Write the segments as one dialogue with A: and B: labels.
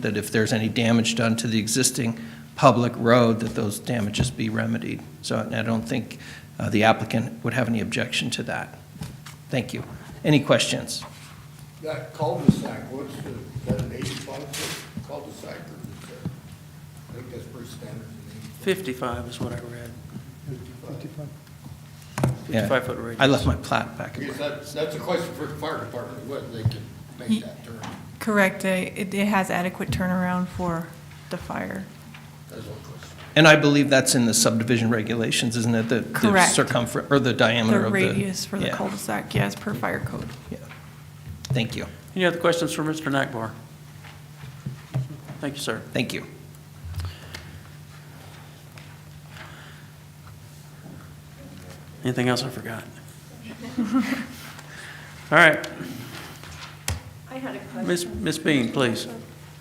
A: that if there's any damage done to the existing public road, that those damages be remedied. So and I don't think uh, the applicant would have any objection to that. Thank you. Any questions?
B: That cul-de-sac, what's the, is that an eighty-five foot cul-de-sac or is that, I think that's pretty standard. an
C: 55 is what I read,
B: 55.
A: Yeah.
C: 55-foot radius.
A: I left my plat back.
B: Because that's, that's a question for the fire department, whether they can make that turn.
D: Correct. It, it it has adequate turnaround for the fire.
B: That's one question.
A: And I believe that's in the subdivision regulations, isn't it? The- The
D: Correct.
A: circumference, or the
D: The
A: diameter of the.
D: radius for the
A: Yeah,
D: cul-de-sac, yes, per fire code.
A: yeah. Thank you.
C: Any other questions for Mr. Nakbar? Thank you, sir.
A: Thank you.
C: Anything else I forgot? All right,
E: I had a
C: Ms.
E: question.
C: Ms. Bean, please.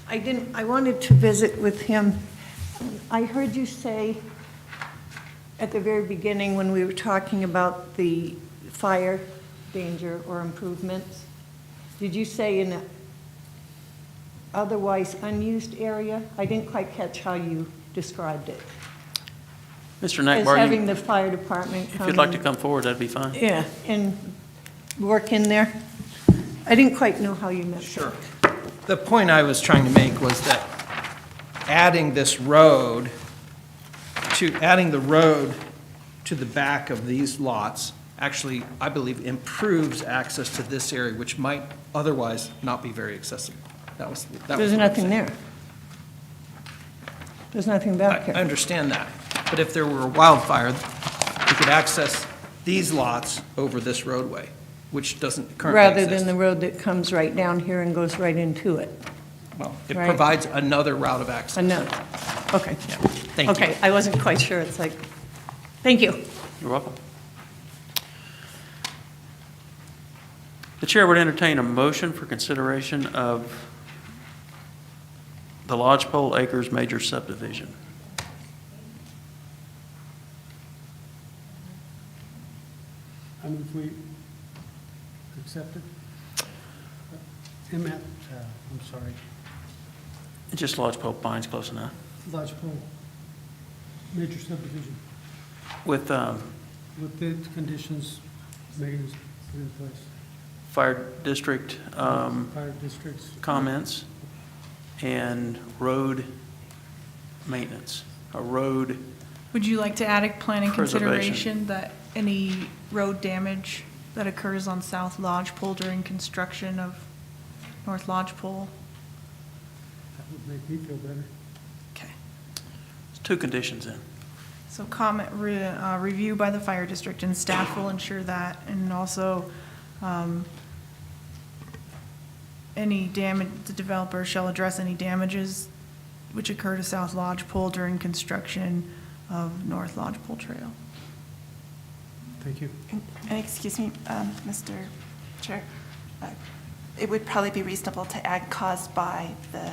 E: I didn't, I wanted to visit with him. I heard you say at the very beginning, when we were talking about the fire danger or improvements, did you say in an otherwise unused area? I didn't quite catch how you described it.
C: Mr.
E: As
C: Nakbar,
E: having
C: you-
E: the fire department
C: if
E: come
C: you'd like to
E: and-
C: come forward, that'd be fine.
E: Yeah, and work in there. I didn't quite know how you meant that.
A: Sure. The point I was trying to make was that adding this road to, adding the road to the back of these lots actually, I believe, improves access to this area, which might otherwise not be very accessible. That was, that was.
E: There's
A: what I'm
E: nothing
A: saying.
E: there. There's nothing
A: I
E: back
A: I
E: here.
A: understand that. But if there were a wildfire, we could access these lots over this roadway, which doesn't currently
E: Rather than
A: exist.
E: the road that comes right down here and goes right into it.
A: Well, it
E: right.
A: provides another route of access.
E: Another, okay.
A: Yeah. Thank you.
E: Okay, I wasn't quite sure. It's like, thank you.
C: You're welcome. The chair would entertain a motion for consideration of the Lodgepole Acres major subdivision.
F: I move we accept it. MAP, uh, I'm sorry,
C: Just Lodgepole Pines, close enough.
F: Lodgepole Major Subdivision
C: With um,
F: with the conditions Megan's put in place.
C: fire district um,
F: Fire districts.
C: comments and road maintenance, a road,
D: Would you like to add a plan in
C: Preservation.
D: consideration that any road damage that occurs on South Lodgepole during construction of North Lodgepole?
F: That would make me feel better.
D: Okay.
C: There's two conditions in.
D: So comment, re- uh, review by the fire district and staff will ensure that, and also, um, any damage, the developer shall address any damages which occur to South Lodgepole during construction of North Lodgepole Trail.
F: Thank you.
G: And excuse me, um, Mr. Chair, uh, it would probably be reasonable to add caused by the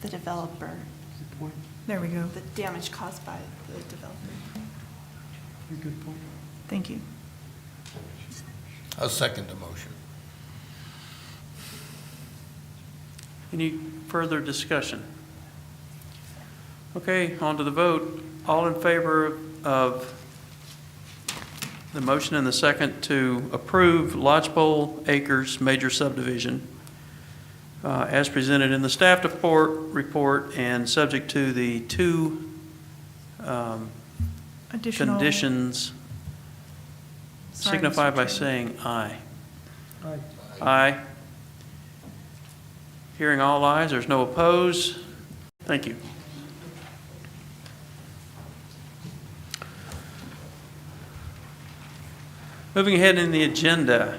G: the developer,
F: Good point.
D: There we go.
G: the damage caused by the developer.
F: Very good point.
D: Thank you.
B: I'll second the motion.
C: Any further discussion? Okay, on to the vote. All in favor of the motion and the second to approve Lodgepole Acres major subdivision uh, as presented in the staff report, report and subject to the two um,
D: Additional.
C: conditions
D: Sorry, Mr.
C: signify by
D: Chairman.
C: saying aye.
F: Aye.
C: Aye. Hearing all ayes, there's no opposed. Thank you. Moving ahead in the agenda,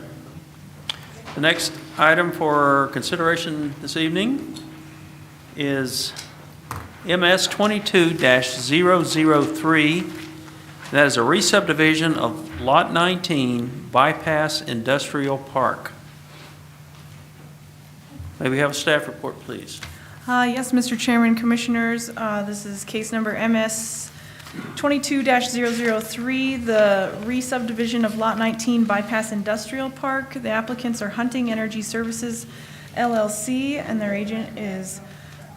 C: the next item for consideration this evening is MS 22-003, that is a re-subdivision of Lot 19 Bypass Industrial Park. May we have a staff report, please?
D: Uh, Yes, Mr. Chairman, Commissioners, uh, this is case number MS 22-003, the re-subdivision of Lot 19 Bypass Industrial Park. The applicants are Hunting Energy Services LLC, and their agent is